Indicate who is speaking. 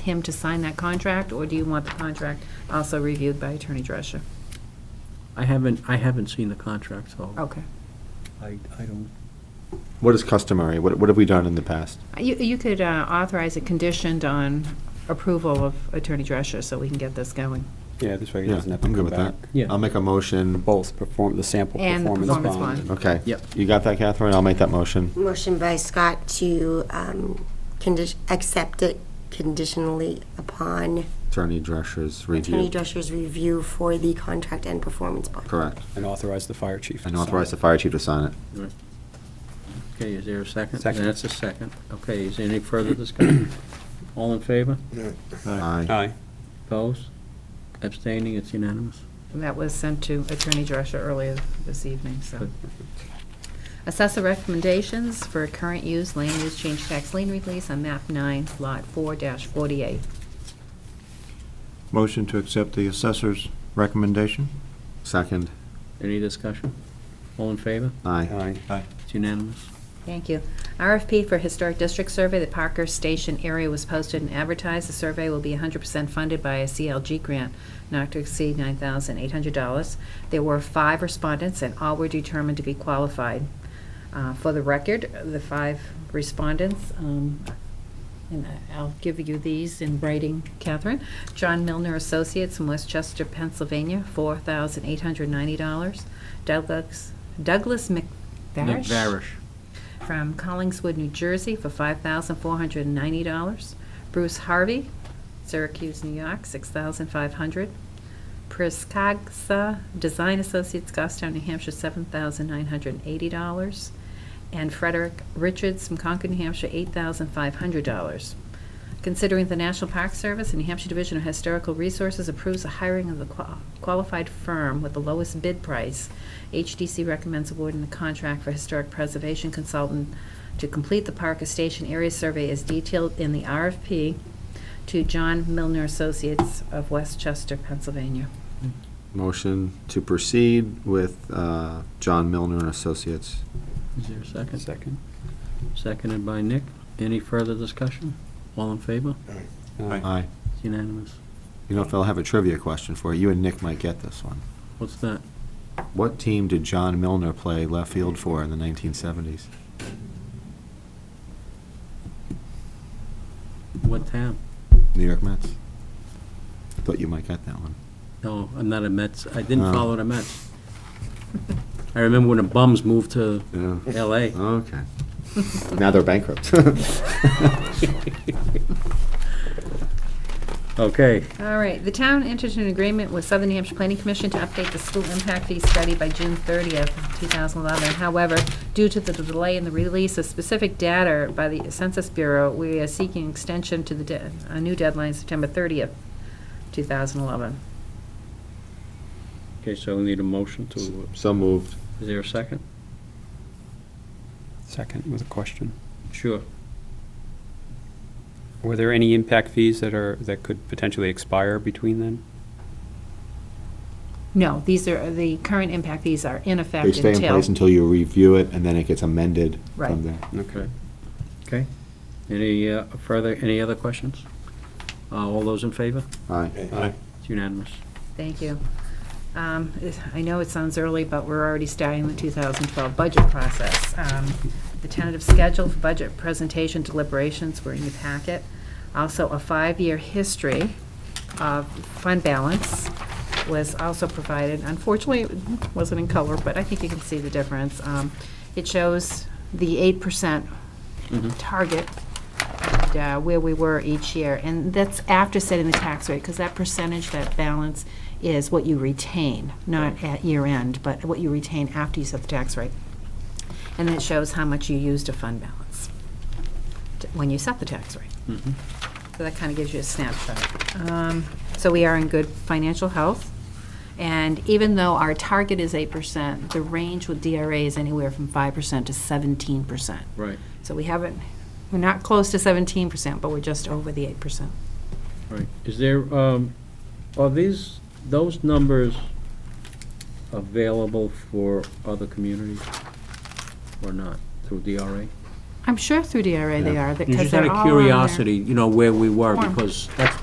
Speaker 1: him to sign that contract, or do you want the contract also reviewed by Attorney Drescher?
Speaker 2: I haven't, I haven't seen the contract, so
Speaker 1: Okay.
Speaker 2: I, I don't.
Speaker 3: What is customary? What, what have we done in the past?
Speaker 1: You, you could uh, authorize it conditioned on approval of Attorney Drescher, so we can get this going.
Speaker 4: Yeah, this way he
Speaker 3: Yeah,
Speaker 4: doesn't have to
Speaker 3: I'm
Speaker 4: come
Speaker 3: good with
Speaker 4: back.
Speaker 3: that.
Speaker 2: Yeah.
Speaker 3: I'll make a motion.
Speaker 4: Both perform, the sample
Speaker 1: And the
Speaker 4: performance bond.
Speaker 1: performance bond.
Speaker 3: Okay.
Speaker 2: Yep.
Speaker 3: You got that, Catherine? I'll make that motion.
Speaker 5: Motion by Scott to um, condi- accept it conditionally upon
Speaker 3: Attorney Drescher's
Speaker 5: Attorney
Speaker 3: review.
Speaker 5: Drescher's review for the contract and performance bond.
Speaker 3: Correct.
Speaker 4: And authorize the fire chief. to
Speaker 3: And
Speaker 4: sign.
Speaker 3: authorize the fire chief to sign it.
Speaker 2: Okay, is there a second?
Speaker 4: Second.
Speaker 2: That's a second. Okay, is there any further discussion? All in favor?
Speaker 3: Aye.
Speaker 4: Aye.
Speaker 2: Opposed? Abstaining? It's unanimous.
Speaker 1: And that was sent to Attorney Drescher earlier this evening, so. Assessor recommendations for current use, land use change tax lien release on map nine, lot four dash forty-eight.
Speaker 6: Motion to accept the assessor's recommendation?
Speaker 3: Second.
Speaker 2: Any discussion? All in favor?
Speaker 3: Aye.
Speaker 4: Aye.
Speaker 2: It's unanimous.
Speaker 1: Thank you. RFP for Historic District Survey, the Parker Station area was posted and advertised. The survey will be 100% funded by a CLG grant not to exceed $9,800. There were five respondents, and all were determined to be qualified. Uh, For the record, the five respondents, um, and I- I'll give you these in writing, Catherine. John Milner Associates in Westchester, Pennsylvania, $4,890. Douglas Douglas
Speaker 2: Nick
Speaker 1: McVarish
Speaker 2: Varish.
Speaker 1: from Collingswood, New Jersey for $5,490. Bruce Harvey, Syracuse, New York, $6,500. Priscagsa Design Associates, Goffstown, New Hampshire, $7,980. And Frederick Richards from Concord, New Hampshire, $8,500. Considering the National Park Service and New Hampshire Division of Historical Resources approves the hiring of the qua- qualified firm with the lowest bid price, HDC recommends awarding the contract for historic preservation consultant to complete the Parker Station area survey as detailed in the RFP to John Milner Associates of Westchester, Pennsylvania.
Speaker 3: Motion to proceed with, uh, John Milner and Associates.
Speaker 2: Is there a second?
Speaker 4: Second.
Speaker 2: Seconded by Nick. Any further discussion? All in favor?
Speaker 3: Aye.
Speaker 2: It's unanimous.
Speaker 3: You know, Phil, I have a trivia question for you. You and Nick might get this one.
Speaker 2: What's that?
Speaker 3: What team did John Milner play left field for in the nineteen seventies?
Speaker 2: What town?
Speaker 3: New York Mets. Thought you might get that one.
Speaker 2: No, I'm not a Mets. I didn't
Speaker 3: Oh.
Speaker 2: follow the Mets. I remember when the Bums moved to
Speaker 3: Yeah.
Speaker 2: L.A.
Speaker 3: Okay. Now they're bankrupt.
Speaker 2: Okay,
Speaker 1: All right, the town entered an agreement with Southern New Hampshire Planning Commission to update the school impact fee study by June 30th, 2011. However, due to the delay in the release of specific data by the Census Bureau, we are seeking extension to the, de- a new deadline, September 30th, 2011.
Speaker 2: okay, so we need a motion to,
Speaker 3: So moved.
Speaker 2: is there a second?
Speaker 4: Second with a question.
Speaker 2: Sure.
Speaker 4: Were there any impact fees that are, that could potentially expire between then?
Speaker 1: No, these are, the current impact fees are in effect
Speaker 3: They
Speaker 1: until...
Speaker 3: stay in place until you review it, and then it gets amended
Speaker 1: Right.
Speaker 3: from there.
Speaker 4: Okay.
Speaker 2: Okay. Any uh, further, any other questions? Uh, All those in favor?
Speaker 3: Aye.
Speaker 2: It's unanimous.
Speaker 1: Thank you. Um, it- I know it sounds early, but we're already starting the 2012 budget process. Um, The tentative schedule for budget presentation deliberations were in your packet. Also, a five-year history of fund balance was also provided. Unfortunately, it wasn't in color, but I think you can see the difference. Um, It shows the 8% target and, uh, where we were each year. And that's after setting the tax rate, because that percentage, that balance, is what you retain, not at year end, but what you retain after you set the tax rate. And it shows how much you used to fund balance t- when you set the tax rate.
Speaker 2: Mhm.
Speaker 1: So that kind of gives you a snapshot. Um, So we are in good financial health. And even though our target is 8%, the range with DRA is anywhere from 5% to 17%.
Speaker 2: Right,
Speaker 1: So we haven't, we're not close to seventeen percent, but we're just over the eight percent.
Speaker 2: right. Is there, um, are these, those numbers available for other communities or not through DRA?
Speaker 1: I'm sure through DRA they
Speaker 7: Yeah.
Speaker 1: are, because
Speaker 2: Just
Speaker 1: they're
Speaker 2: out
Speaker 1: all
Speaker 2: of
Speaker 1: on there.
Speaker 2: curiosity, you know, where we were,
Speaker 1: Form.
Speaker 2: because that's